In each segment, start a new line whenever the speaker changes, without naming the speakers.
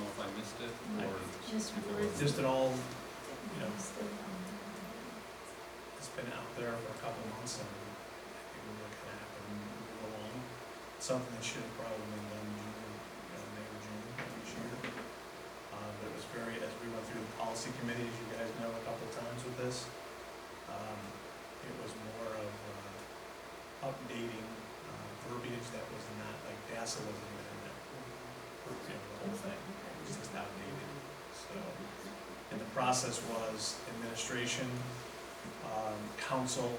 it, or
Just
refer-
Just
just
an
an
all, you know, it's been out there for a couple months and I think we're looking at it and move along. Something that should have probably been done in June, you know, May or June of this year. Uh, but it was very, as we went through the policy committee, as you guys know, a couple times with this, um, it was more of, uh, updating, uh, verbiage that was not like DASSA wasn't even in there. For example, the whole thing, it was just outdated, so. And the process was administration, um, council,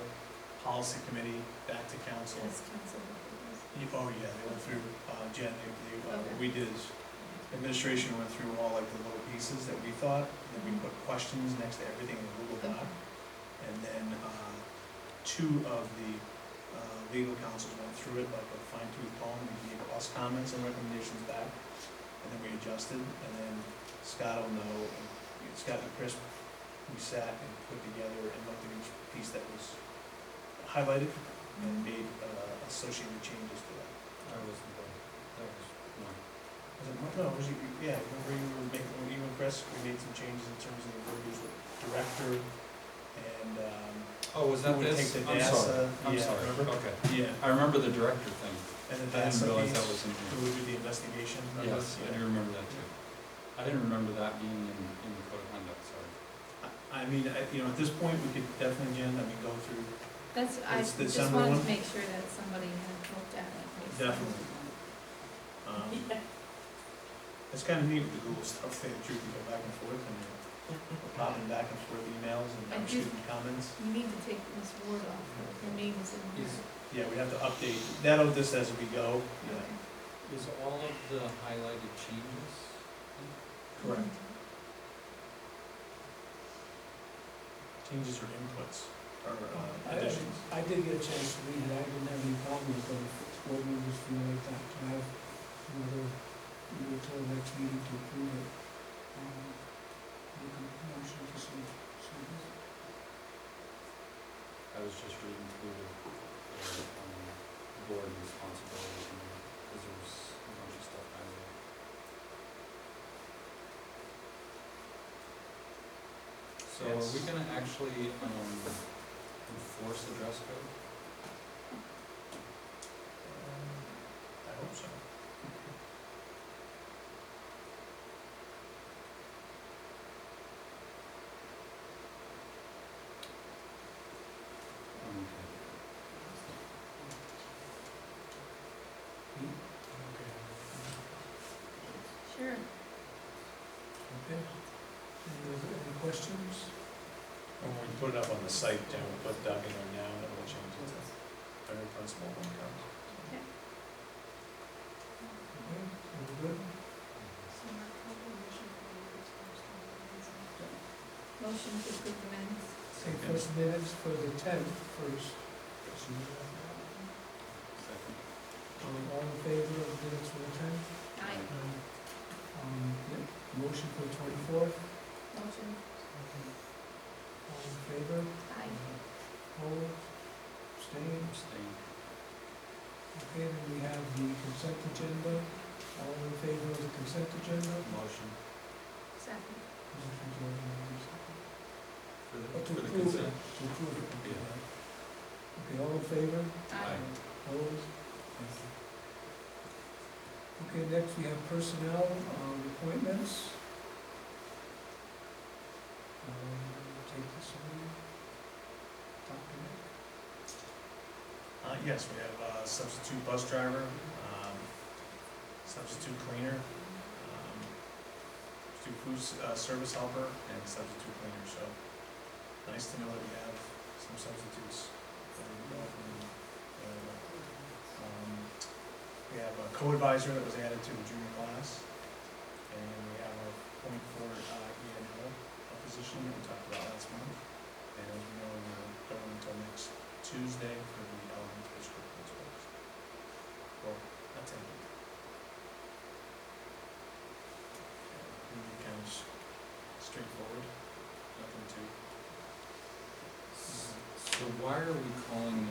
policy committee, back to council. Yeah, Oh, yeah, they went through, uh, Jen, they, they, uh, what we did is, administration went through all like the little pieces that we thought, and then we put questions next to everything in Google Doc. And then, uh, two of the, uh, legal counsels went through it like a fine tooth comb, and gave us comments and recommendations back. And then we adjusted, and then Scott will know, and Scott and Chris, we sat and put together and looked at each piece that was highlighted
Mm-hmm.
and made, uh, associated changes to that.
I was, that was one.
Was it, no, was it, yeah, remember you were making, when you and Chris, we made some changes in terms of the verbiage with director and, um,
Oh, was that
Who would
this?
take the
I'm sorry,
NASA?
I'm
Yeah,
sorry,
remember?
okay.
yeah,
I remember the director thing.
and then
I
that's a
didn't realize
piece,
that was in
who would do the investigation.
here.
remember?
Yes, I do remember that too. I didn't remember that being in, in the code of conduct, sorry.
I I mean, I, you know, at this point, we could definitely, Jen, I mean, go through,
That's, I
It's the
just
summer
wanted
one?
to make sure that somebody had looked at it.
Definitely. um, it's kind of neat with the Google stuff, that you can go back and forth and we're popping back and forth emails
I
and
do-
student comments.
You need to take Miss Ward off, her name is in
Is,
there.
Yeah, we have to update, that'll just as we go, yeah.
is all of the highlighted changes?
Correct. Changes or inputs or uh,
I,
additions.
I did get a chance to read it, I didn't have any problems, but if board members feel like that, to have another, you know, till the next meeting to approve it. um, Make a motion to so, so,
I was just reading through the, the, um, board responsibilities and, because there was a bunch of stuff highlighted. So are we
Yes.
gonna actually, um, enforce the dress code?
Um, I hope so.
Sure.
okay. Any, other- any questions?
When we put it up on the site, Jen, we'll put Doug in there now and we'll change it to very principal when it comes.
Okay, all good?
Motion to approve the minutes.
Take first minutes for the tenth first. So,
Second.
um, All in favor of minutes for the tenth?
Aye.
Um, yeah, motion for the twenty-fourth,
Motion,
all in favor?
aye.
Opposed, abstained,
Abstain.
okay, then we have the consent agenda, all in favor of the consent agenda?
Motion
Second.
Motion
for the,
to approve. Oh, to
for the
approve
consent.
it, to approve it, okay. Okay, all in favor,
Aye.
opposed? Thank you. Okay, next we have personnel, um, appointments. Um, take this one, document.
Uh, yes, we have a substitute bus driver, um, substitute cleaner, um, substitute food, s- uh, service helper, and substitute cleaner, so nice to know that we have some substitutes that we know from, uh, um, we have a co-advisor that was added to the junior class, and we have a point for, uh, E N L, a position that we talked about last month, and as we know, we're going until next Tuesday for the elementary school principals. Well, attended. Really kind of s- straightforward, nothing too.
Mm-hmm. S- So why are we calling